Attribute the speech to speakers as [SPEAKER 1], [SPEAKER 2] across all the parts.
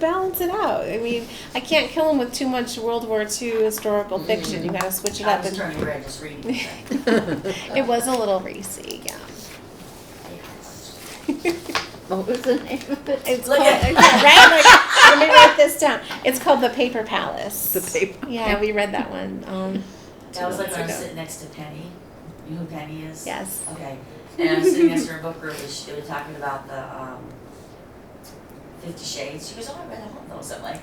[SPEAKER 1] balance it out. I mean, I can't kill them with too much World War II historical fiction. You gotta switch it
[SPEAKER 2] I
[SPEAKER 1] up.
[SPEAKER 2] was
[SPEAKER 1] And
[SPEAKER 2] turning red just reading it.
[SPEAKER 1] it was a little racy, yeah.
[SPEAKER 3] What was the name of it?
[SPEAKER 1] It's
[SPEAKER 2] Look
[SPEAKER 1] called, yeah,
[SPEAKER 2] at-
[SPEAKER 1] right? Like, let me write this down. It's called The Paper Palace.
[SPEAKER 3] The paper.
[SPEAKER 1] Yeah, we read that one. Um,
[SPEAKER 2] That was like when I was
[SPEAKER 1] Ago.
[SPEAKER 2] sitting next to Penny. You know who Penny is?
[SPEAKER 1] yes.
[SPEAKER 2] Okay. And I was sitting next to her in book group, and she was talking about the, um, Fifty Shades. She goes, oh, I read all of those. I'm like,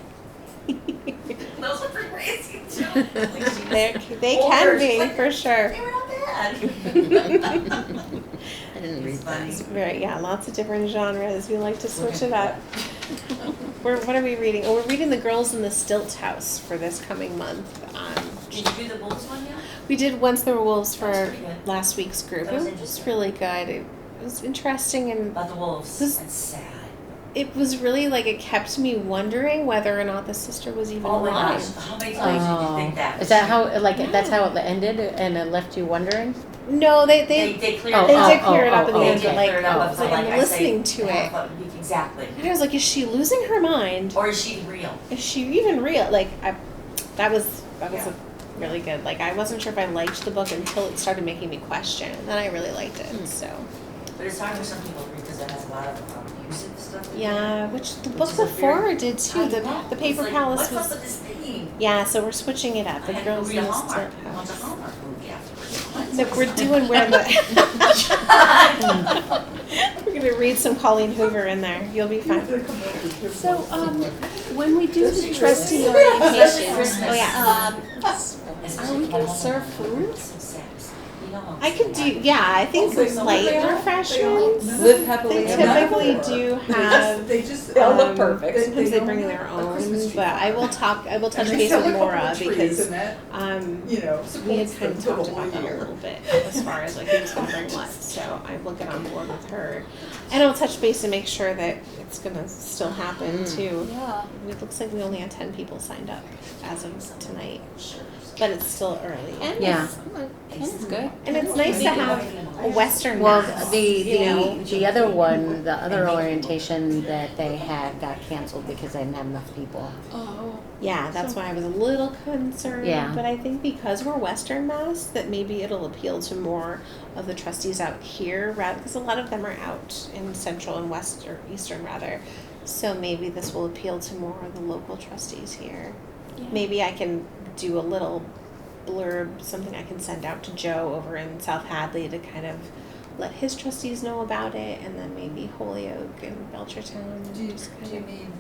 [SPEAKER 2] those are pretty crazy too. Like, she was-
[SPEAKER 1] They're, they can be, for sure.
[SPEAKER 2] They were not bad.
[SPEAKER 3] I didn't read
[SPEAKER 2] It's funny.
[SPEAKER 3] that.
[SPEAKER 1] Right, yeah, lots of different genres. We like to switch it up. We're, what are we reading? Oh, we're reading The Girls in the Stilt House for this coming month. Um,
[SPEAKER 2] Did you do the Bulls one yet?
[SPEAKER 1] We did Once There Were Wolves
[SPEAKER 2] That was
[SPEAKER 1] for
[SPEAKER 2] pretty good.
[SPEAKER 1] last week's group.
[SPEAKER 2] That was
[SPEAKER 1] it was
[SPEAKER 2] interesting.
[SPEAKER 1] really good. It was interesting and
[SPEAKER 2] About the wolves.
[SPEAKER 1] This-
[SPEAKER 2] That's sad.
[SPEAKER 1] it was really like it kept me wondering whether or not the sister was even
[SPEAKER 2] Oh my
[SPEAKER 1] alive.
[SPEAKER 2] gosh, how many times did you
[SPEAKER 3] Oh.
[SPEAKER 2] think that?
[SPEAKER 4] Is that how, like, that's
[SPEAKER 1] Yeah.
[SPEAKER 4] how it ended and it left you wondering?
[SPEAKER 1] No, they
[SPEAKER 2] They,
[SPEAKER 1] they,
[SPEAKER 2] they cleared
[SPEAKER 4] Oh,
[SPEAKER 2] it
[SPEAKER 1] they
[SPEAKER 2] up.
[SPEAKER 1] did clear it up in the
[SPEAKER 4] oh, oh,
[SPEAKER 2] They
[SPEAKER 1] end.
[SPEAKER 2] did
[SPEAKER 1] but,
[SPEAKER 4] okay.
[SPEAKER 1] Like,
[SPEAKER 2] clear it up, but
[SPEAKER 4] oh,
[SPEAKER 2] so
[SPEAKER 1] like,
[SPEAKER 2] like
[SPEAKER 1] I'm
[SPEAKER 2] I say,
[SPEAKER 1] listening to
[SPEAKER 2] half
[SPEAKER 1] it.
[SPEAKER 2] of- Exactly.
[SPEAKER 1] I was like, is she losing her mind?
[SPEAKER 2] Or is she real?
[SPEAKER 1] Is she even real? Like, I, that was that was
[SPEAKER 2] Yeah.
[SPEAKER 1] a really good. Like, I wasn't sure if I liked the book until it started making me question. And then I really liked it.
[SPEAKER 2] Hmm.
[SPEAKER 1] So
[SPEAKER 2] But it's hard for some people because it has a lot of um, abusive stuff. in it.
[SPEAKER 1] yeah, which the book
[SPEAKER 2] is a
[SPEAKER 1] before
[SPEAKER 2] very-
[SPEAKER 1] did too.
[SPEAKER 2] I
[SPEAKER 1] The
[SPEAKER 2] know.
[SPEAKER 1] the
[SPEAKER 2] It's
[SPEAKER 1] Paper
[SPEAKER 2] like,
[SPEAKER 1] Palace was
[SPEAKER 2] What's up with this thing?
[SPEAKER 1] Yeah, so we're switching it up.
[SPEAKER 2] I
[SPEAKER 1] The
[SPEAKER 2] had to
[SPEAKER 1] girls
[SPEAKER 2] read a
[SPEAKER 1] in the
[SPEAKER 2] Hallmark.
[SPEAKER 1] step
[SPEAKER 2] I want the
[SPEAKER 1] house.
[SPEAKER 2] Hallmark movie afterwards.
[SPEAKER 1] Look, we're doing where the we're gonna read some Colleen Hoover in there. You'll be fine. So, um, when we do the trustee
[SPEAKER 2] Especially
[SPEAKER 1] orientation,
[SPEAKER 2] Christmas. Um,
[SPEAKER 1] oh yeah,
[SPEAKER 2] Especially
[SPEAKER 1] we gonna
[SPEAKER 2] when I'm
[SPEAKER 1] serve
[SPEAKER 2] home.
[SPEAKER 1] food?
[SPEAKER 2] Some sex. You know,
[SPEAKER 1] I could do. Yeah, I think
[SPEAKER 5] Hopefully
[SPEAKER 1] some
[SPEAKER 5] someone
[SPEAKER 1] light
[SPEAKER 5] they are.
[SPEAKER 1] refreshments.
[SPEAKER 5] Live happily
[SPEAKER 1] They
[SPEAKER 5] ever after.
[SPEAKER 1] typically do have.
[SPEAKER 5] They just,
[SPEAKER 1] um, Sometimes
[SPEAKER 5] Sometimes
[SPEAKER 1] they bring their own, but I will talk. I will touch base with Laura because um,
[SPEAKER 5] you know,
[SPEAKER 1] We had
[SPEAKER 5] supports
[SPEAKER 1] kind
[SPEAKER 5] them
[SPEAKER 1] of
[SPEAKER 5] for the
[SPEAKER 1] talked
[SPEAKER 5] whole
[SPEAKER 1] about that a
[SPEAKER 5] year.
[SPEAKER 1] little bit as far as like who's gonna bring what, so I will get on board with her. And I'll touch base and make sure that it's gonna still happen too.
[SPEAKER 6] Yeah.
[SPEAKER 1] It looks like we only had ten people signed up as of tonight,
[SPEAKER 2] Sure.
[SPEAKER 1] but it's still early.
[SPEAKER 4] Yeah.
[SPEAKER 6] That's good.
[SPEAKER 1] And it's nice to have a Western
[SPEAKER 4] Well,
[SPEAKER 1] now.
[SPEAKER 4] the,
[SPEAKER 1] you know?
[SPEAKER 4] the, the other one, the other orientation that they had got canceled because they didn't have enough people.
[SPEAKER 6] Oh.
[SPEAKER 1] Yeah, that's why I was a little concerned.
[SPEAKER 4] Yeah.
[SPEAKER 1] But I think because we're Western Mass, that maybe it'll appeal to more of the trustees out here, rather because a lot of them are out in Central and West or Eastern rather. So maybe this will appeal to more of the local trustees here. Maybe I can do a little blurb, something I can send out to Joe over in South Hadley to kind of let his trustees know about it, and then maybe Holyoke and Belchertown.
[SPEAKER 5] Do you,
[SPEAKER 1] just kind
[SPEAKER 5] do you
[SPEAKER 1] of-
[SPEAKER 5] mean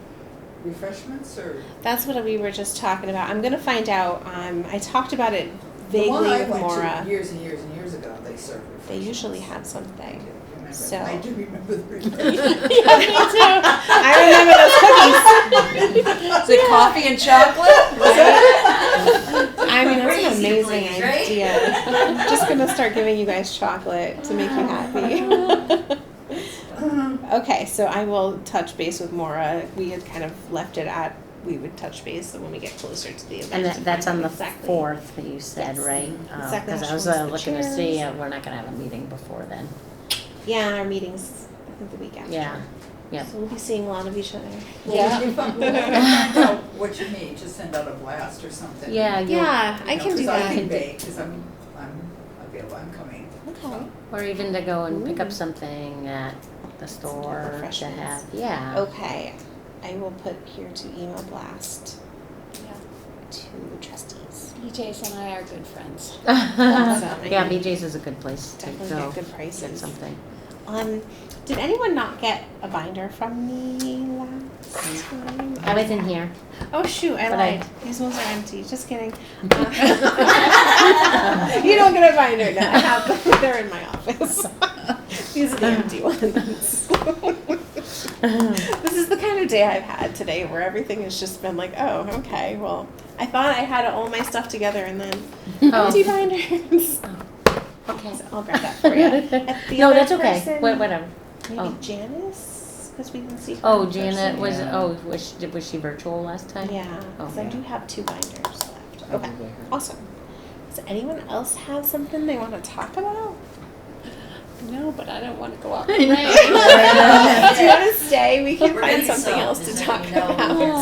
[SPEAKER 5] refreshments or?
[SPEAKER 1] that's what we were just talking about. I'm gonna find out. Um, I talked about it vaguely
[SPEAKER 5] The one I
[SPEAKER 1] with
[SPEAKER 5] went to
[SPEAKER 1] Laura.
[SPEAKER 5] Years and years and years ago, they served refreshments.
[SPEAKER 1] They usually
[SPEAKER 5] I
[SPEAKER 1] have something.
[SPEAKER 5] do remember.
[SPEAKER 1] So-
[SPEAKER 5] I do remember the
[SPEAKER 1] yeah,
[SPEAKER 5] refreshments.
[SPEAKER 1] me too. I
[SPEAKER 6] Is it coffee and chocolate?
[SPEAKER 1] remember those cookies. I mean, that's an
[SPEAKER 2] Crazy
[SPEAKER 1] amazing
[SPEAKER 2] place, right?
[SPEAKER 1] idea. I'm just gonna start giving you guys chocolate to make you happy. okay, so I will touch base with Maura. We had kind of left it at we would touch base when we get closer to the event.
[SPEAKER 4] And
[SPEAKER 1] to
[SPEAKER 4] that, that's
[SPEAKER 1] find
[SPEAKER 4] on
[SPEAKER 1] out
[SPEAKER 4] the
[SPEAKER 1] exactly.
[SPEAKER 4] fourth that you said,
[SPEAKER 1] Yes.
[SPEAKER 4] right? Oh,
[SPEAKER 1] Exactly
[SPEAKER 4] Cause
[SPEAKER 1] how
[SPEAKER 4] I was
[SPEAKER 1] she wants
[SPEAKER 4] uh,
[SPEAKER 1] the
[SPEAKER 4] looking to see,
[SPEAKER 1] chairs.
[SPEAKER 4] uh, we're not gonna have a meeting before then.
[SPEAKER 1] Yeah, our meetings. I think the week after.
[SPEAKER 4] Yeah. Yep.
[SPEAKER 1] So we'll be seeing a lot of each other.
[SPEAKER 5] Well, we can find- we'll have to find out What you need, just send out a blast or something.
[SPEAKER 4] Yeah, you,
[SPEAKER 1] Yeah, I
[SPEAKER 5] You know,
[SPEAKER 1] can do
[SPEAKER 5] 'cause I
[SPEAKER 1] that.
[SPEAKER 5] can bake, cause I'm, I'm available, I'm coming.
[SPEAKER 1] Okay.
[SPEAKER 4] or even to go and pick
[SPEAKER 1] Ooh.
[SPEAKER 4] up something at the store to
[SPEAKER 1] refreshments.
[SPEAKER 4] have,
[SPEAKER 1] Oh,
[SPEAKER 4] yeah.
[SPEAKER 1] Okay, I will put here to email blast
[SPEAKER 6] Yeah.
[SPEAKER 1] to trustees.
[SPEAKER 6] DJs and I are good friends.
[SPEAKER 1] Awesome.
[SPEAKER 4] Yeah, BJ's is a good place to
[SPEAKER 1] Definitely
[SPEAKER 4] go
[SPEAKER 1] get good
[SPEAKER 4] get
[SPEAKER 1] prices.
[SPEAKER 4] something.
[SPEAKER 1] Um, did anyone not get a binder from me last time?
[SPEAKER 4] I was in here.
[SPEAKER 1] Mm. Oh shoot, I
[SPEAKER 4] But I-
[SPEAKER 1] lied. These ones are empty. Just kidding. Uh, you don't get a binder now. I have them. They're in my office. These are the empty ones.
[SPEAKER 4] Oh,
[SPEAKER 1] this is the kind of day I've had today where everything has just been like, oh, okay, well, I thought I had all my stuff together and then
[SPEAKER 4] Oh.
[SPEAKER 1] empty binders.
[SPEAKER 4] Okay.
[SPEAKER 1] So I'll grab that for you. the
[SPEAKER 4] No,
[SPEAKER 1] other
[SPEAKER 4] that's okay,
[SPEAKER 1] person-
[SPEAKER 4] Wha- whatever.
[SPEAKER 1] Maybe
[SPEAKER 4] Oh.
[SPEAKER 1] Janice? Because we didn't see her.
[SPEAKER 4] Oh,
[SPEAKER 1] in
[SPEAKER 4] Janet
[SPEAKER 1] person.
[SPEAKER 4] was,
[SPEAKER 7] Yeah.
[SPEAKER 4] oh, was she, was she virtual last time?
[SPEAKER 1] Yeah, because
[SPEAKER 4] Oh,
[SPEAKER 1] I
[SPEAKER 4] yeah.
[SPEAKER 1] do have two binders left. Okay.
[SPEAKER 7] Probably her.
[SPEAKER 1] Awesome. Does anyone else have something they want to talk about?
[SPEAKER 6] No, but I don't want to go out.
[SPEAKER 3] I know.
[SPEAKER 1] Do you want to stay? We can
[SPEAKER 2] We're
[SPEAKER 1] find
[SPEAKER 2] getting
[SPEAKER 1] something
[SPEAKER 2] some.
[SPEAKER 1] else to
[SPEAKER 2] Just
[SPEAKER 1] talk
[SPEAKER 2] let me know.
[SPEAKER 1] about.